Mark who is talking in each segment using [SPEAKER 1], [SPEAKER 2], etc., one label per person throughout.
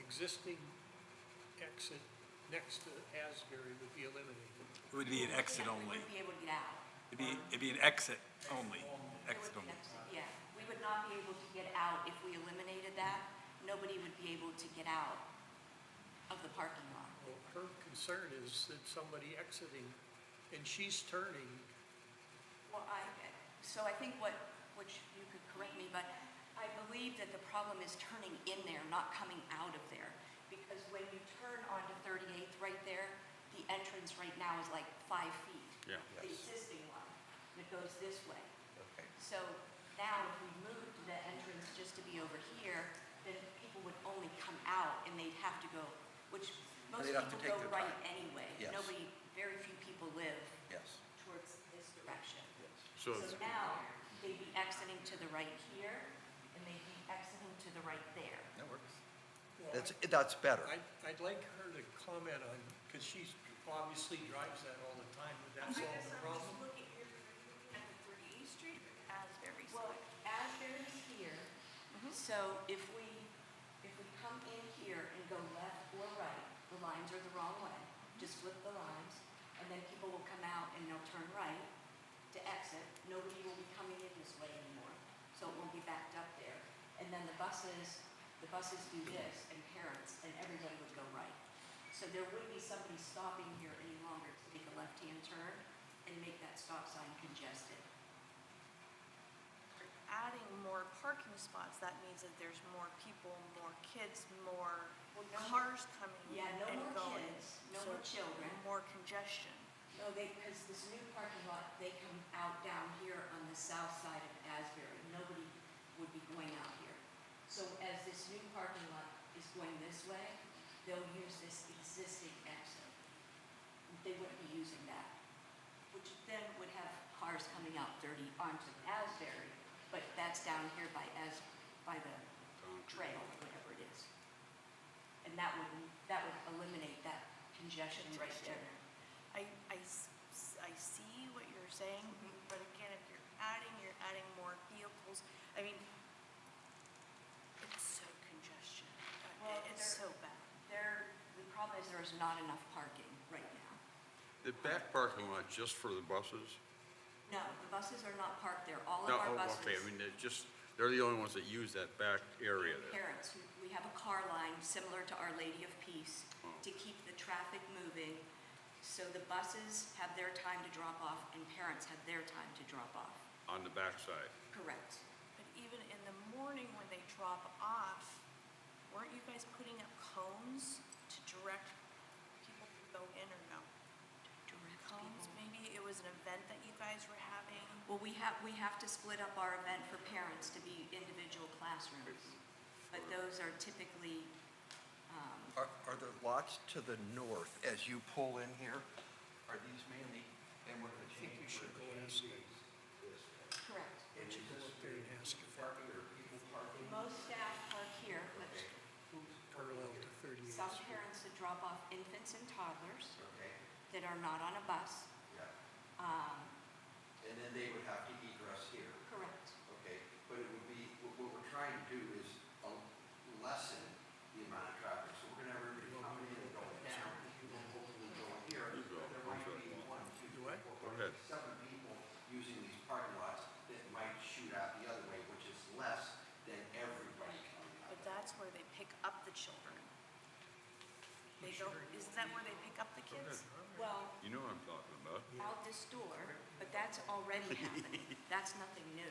[SPEAKER 1] existing exit next to Asbury would be eliminated.
[SPEAKER 2] It would be an exit only.
[SPEAKER 3] We wouldn't be able to get out. Um,
[SPEAKER 2] It'd be, it'd be an exit only,
[SPEAKER 3] It
[SPEAKER 2] exit
[SPEAKER 3] would be
[SPEAKER 2] only.
[SPEAKER 3] exit, Yeah, we would not be able to get out if we eliminated that. Nobody would be able to get out of the parking lot.
[SPEAKER 1] Well, her concern is that somebody exiting, and she's turning,
[SPEAKER 3] Well, I, so I think what, which you could correct me, but I believe that the problem is turning in there, not coming out of there. Because when you turn onto 38th right there, the entrance right now is like five feet.
[SPEAKER 4] Yeah.
[SPEAKER 3] The existing one that goes this way. So now if we moved the entrance just to be over here, then people would only come out and they'd have to go, which most
[SPEAKER 5] They'd have to
[SPEAKER 3] people
[SPEAKER 5] take
[SPEAKER 3] go
[SPEAKER 5] their
[SPEAKER 3] right
[SPEAKER 5] time.
[SPEAKER 3] anyway.
[SPEAKER 5] Yes.
[SPEAKER 3] Nobody, very few people live
[SPEAKER 5] Yes.
[SPEAKER 3] towards this direction.
[SPEAKER 4] So,
[SPEAKER 3] So now, they'd be exiting to the right here, and they'd be exiting to the right there.
[SPEAKER 5] That works.
[SPEAKER 1] well,
[SPEAKER 5] That's, that's better.
[SPEAKER 1] I'd, I'd like her to comment on, because she's obviously drives that all the time, would that solve the problem?
[SPEAKER 6] looking, you're looking at the 38th Street or Asbury
[SPEAKER 3] Well, Asbury's here, so if we, if we come in here and go left or right, the lines are the wrong way, just flip the lines, and then people will come out and they'll turn right to exit, nobody will be coming in this way anymore, so it won't be backed up there. And then the buses, the buses do this, and parents, and everybody would go right. So there wouldn't be somebody stopping here any longer to make a left-hand turn and make that stop sign congested.
[SPEAKER 6] Adding more parking spots, that means that there's more people, more kids, more
[SPEAKER 3] Well, no-
[SPEAKER 6] cars coming in
[SPEAKER 3] Yeah, no
[SPEAKER 6] and
[SPEAKER 3] more
[SPEAKER 6] going.
[SPEAKER 3] kids, no
[SPEAKER 6] So
[SPEAKER 3] more children.
[SPEAKER 6] More congestion.
[SPEAKER 3] No, they, because this new parking lot, they come out down here on the south side of Asbury. Nobody would be going out here. So as this new parking lot is going this way, they'll use this existing exit. They wouldn't be using that, which then would have cars coming out 30 onto Asbury, but that's down here by As, by the trail, or whatever it is. And that would, that would eliminate that congestion right there.
[SPEAKER 6] I, I s- s- I see what you're saying, but again, if you're adding, you're adding more vehicles. I mean, it's so congestion. Uh,
[SPEAKER 3] Well,
[SPEAKER 6] It's so
[SPEAKER 3] there-
[SPEAKER 6] bad.
[SPEAKER 3] There, the problem is there is not enough parking right now.
[SPEAKER 4] the back parking lot just for the buses?
[SPEAKER 3] No, the buses are not parked there. All of
[SPEAKER 4] No,
[SPEAKER 3] our
[SPEAKER 4] oh,
[SPEAKER 3] buses.
[SPEAKER 4] okay, I mean, they're just, they're the only ones that use that back area there.
[SPEAKER 3] Parents, we- we have a car line similar to Our Lady of Peace
[SPEAKER 4] Hmm.
[SPEAKER 3] to keep the traffic moving. So the buses have their time to drop off and parents have their time to drop off.
[SPEAKER 4] on the backside.
[SPEAKER 3] Correct.
[SPEAKER 6] But even in the morning when they drop off, weren't you guys putting up cones to direct people to go in or no?
[SPEAKER 3] Direct
[SPEAKER 6] Cones,
[SPEAKER 3] people.
[SPEAKER 6] maybe it was an event that you guys were having.
[SPEAKER 3] Well, we have, we have to split up our event for parents to be individual classrooms. But those are typically,
[SPEAKER 5] Are, are the lots to the north, as you pull in here, are these mainly, and we're gonna
[SPEAKER 1] I think
[SPEAKER 5] change?
[SPEAKER 1] we should go and ask her.
[SPEAKER 3] correct.
[SPEAKER 1] We should go up there and ask her,
[SPEAKER 3] Most staff park here, but
[SPEAKER 1] parallel to 38th
[SPEAKER 3] some
[SPEAKER 1] Street.
[SPEAKER 3] parents that drop off infants and toddlers that are not on a bus. um,
[SPEAKER 5] And then they would have to egress here,
[SPEAKER 3] Correct.
[SPEAKER 5] okay? But it would be, what, what we're trying to do is um, lessen the amount of traffic. So we're gonna have everybody coming in and going down, and then hopefully going here.
[SPEAKER 4] You go.
[SPEAKER 5] There might be one, two,
[SPEAKER 1] Do
[SPEAKER 5] three,
[SPEAKER 1] I?
[SPEAKER 5] four,
[SPEAKER 4] Go ahead.
[SPEAKER 5] seven people using these parking lots that might shoot out the other way, which is less than everybody coming out.
[SPEAKER 6] But that's where they pick up the children. They go, isn't that where they pick up the kids?
[SPEAKER 3] Well,
[SPEAKER 4] You know what I'm talking about?
[SPEAKER 3] out this door, but that's already happening. That's nothing new.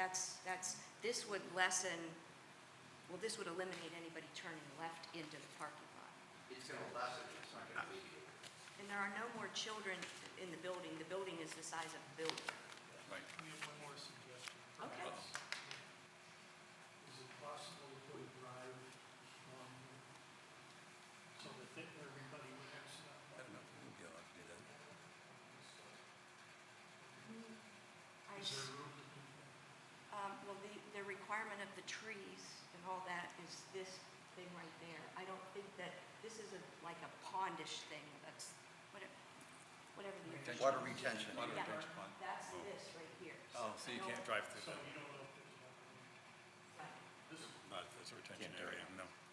[SPEAKER 3] That's, that's, this would lessen, well, this would eliminate anybody turning left into the parking lot.
[SPEAKER 5] It's gonna lessen, it's not gonna be.
[SPEAKER 3] And there are no more children in the building. The building is the size of the building.
[SPEAKER 4] Right.
[SPEAKER 1] We have one more suggestion.
[SPEAKER 3] Okay.
[SPEAKER 1] Is it possible to put a drive on here? So that they- everybody would have stuff?
[SPEAKER 3] I
[SPEAKER 1] Is
[SPEAKER 3] s-
[SPEAKER 1] there room to do that?
[SPEAKER 3] Um, well, the, the requirement of the trees and all that is this thing right there. I don't think that, this is a, like a pondish thing, that's, whatever, whatever the. official-
[SPEAKER 5] Water retention.
[SPEAKER 2] Water
[SPEAKER 3] Yeah,
[SPEAKER 2] retention pond.
[SPEAKER 3] That's this right here.
[SPEAKER 2] Oh, so you can't drive
[SPEAKER 1] So
[SPEAKER 2] through that?
[SPEAKER 1] you don't know if there's enough room.
[SPEAKER 3] Right.
[SPEAKER 2] Not if it's a retention area, no.